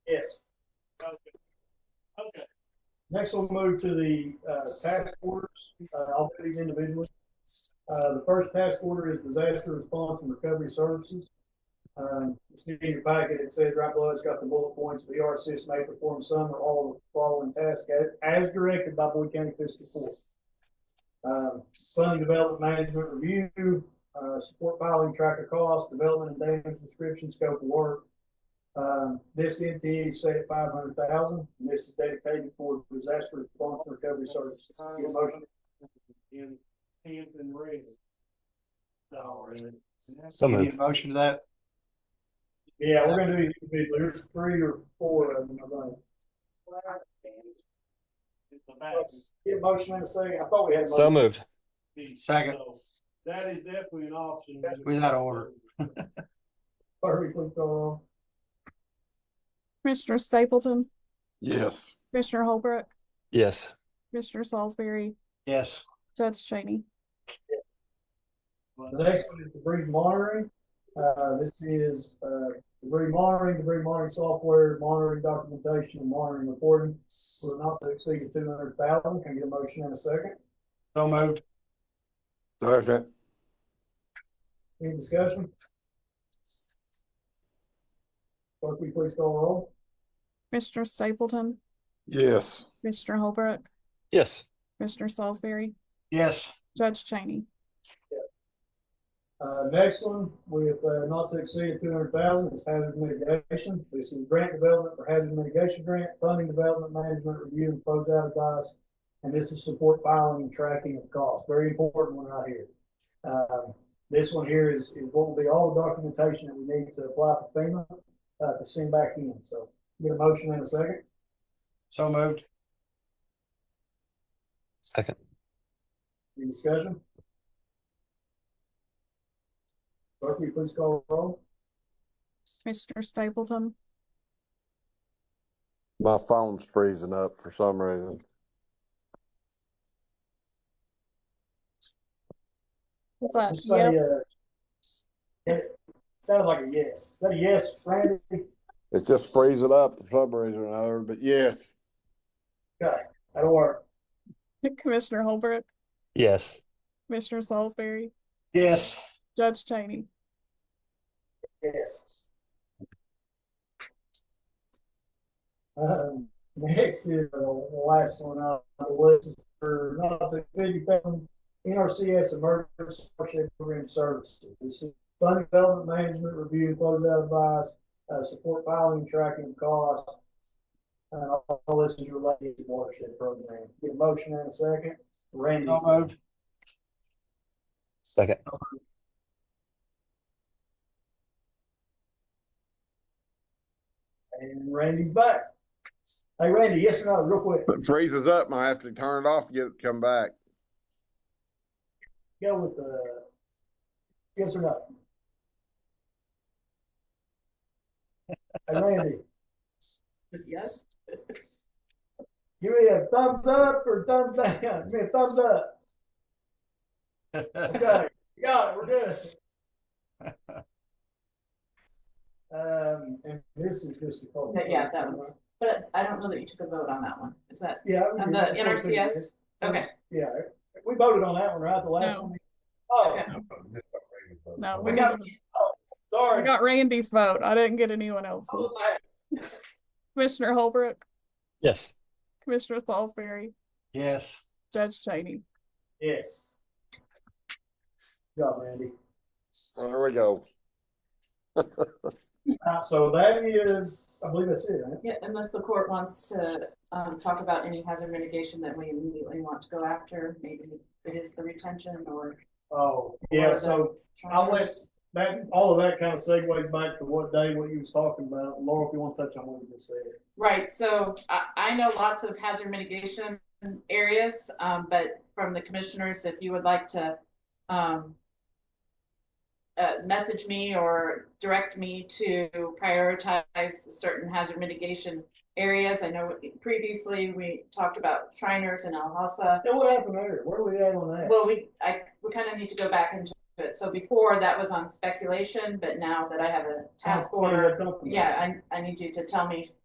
Next, we'll move to the uh, task orders. Uh, I'll do these individually. Uh, The first task order is disaster response and recovery services. Um, It's in your packet. It says right below, it's got the bullet points. The RCS may perform some or all of the following tasks as- as directed by Boyd County Fiscal Court. Um, Fund development management review, uh, support filing, track of costs, development and damage description, scope of work, um, this NTA is set at five hundred thousand, and this is dedicated for disaster response and recovery services. Get a motion? In Hampton Red. No, really. So Any moved. Motion to that, Yeah, we're gonna do these individually, there's three or four of them, I think. It's the back. Get a motion in a second, I thought we had. a So motion. moved. Second. So, That is definitely an option. we out of order. Perfectly gone. Commissioner Stapleton, yes, Commissioner Holbrook, Yes. Commissioner Salisbury, Yes, Judge Cheney. The next one is debris monitoring, uh, this is, uh, debris monitoring, debris monitoring software, monitoring documentation, and monitoring reporting. Will not exceed two hundred thousand, can I get a motion in a second, so moved, second, any discussion? Clerk, will you please call roll? Commissioner Stapleton, yes, Commissioner Holbrook, Yes. Commissioner Salisbury, yes, Judge Cheney. Uh, next one with, uh, not to exceed two hundred thousand is hazard mitigation. This is grant development for hazard mitigation grant, funding development, management review, and closeout advice. And this is support filing and tracking of costs. Very important one right here. Um this one here is, is what will be all the documentation that we need to apply for FEMA, uh, to send back in. So get a motion in a second. so moved, Second. Any discussion? Clerk, will you please call the roll? Commissioner Stapleton, my phone's freezing up for some reason. is that Just say, yes? uh, it sounded like a yes. Is that a yes, Randy? It's just freezing up for some reason or another, but yes, That'll work. Commissioner Holbrook, Yes. Commissioner Salisbury, yes, Judge Cheney. Yes. Um, next is uh, the last one on the list is for not to fifty thousand NRCS Emergency Hardship Program Services. This is fund development management review, closeout advice, uh, support filing, tracking costs. Uh, all this is related to watershed program. Get a motion in a second. Randy. so moved, Second. And Randy's back. Hey, Randy, yes or no, real quick, If it freezes up, I have to turn it off to get it to come back. go with the, yes or no? Hey, Randy, Yes. give me a thumbs up or thumbs down, give me a thumbs up, okay, yeah, we're good. Um, and this is just a call. But yeah, that was- But I don't know that you took a vote on that one. Is that, Yeah. on the NRCS? Okay, Yeah, we voted on that one, right, the last No. one? Oh, Okay. No, we we got, got, we sorry. got Randy's vote. I didn't get anyone else's. Commissioner Holbrook, Yes. Commissioner Salisbury, yes. Judge Cheney. Yes. Good job, Randy. There we go. Uh, so that is, I believe that's it, right? yeah, unless the court wants to, um, talk about any hazard mitigation that we immediately want to go after, maybe it is the retention or. Oh, yeah, so I'll let, that, all of that kind of segues back to what Dave, what you was talking about. Laura, if you want to touch on what you just said. Right, so I, I know lots of hazard mitigation areas, um, but from the commissioners, if you would like to, um, uh, message me or direct me to prioritize certain hazard mitigation areas. I know previously we talked about Shriners and Alhassa. Yeah, what happened there? Where are we at on that? Well, we, I, we kind of need to go back into it. So before that was on speculation, but now that I have a task Oh, yeah, order, I talked about it. yeah, I, I need you to tell me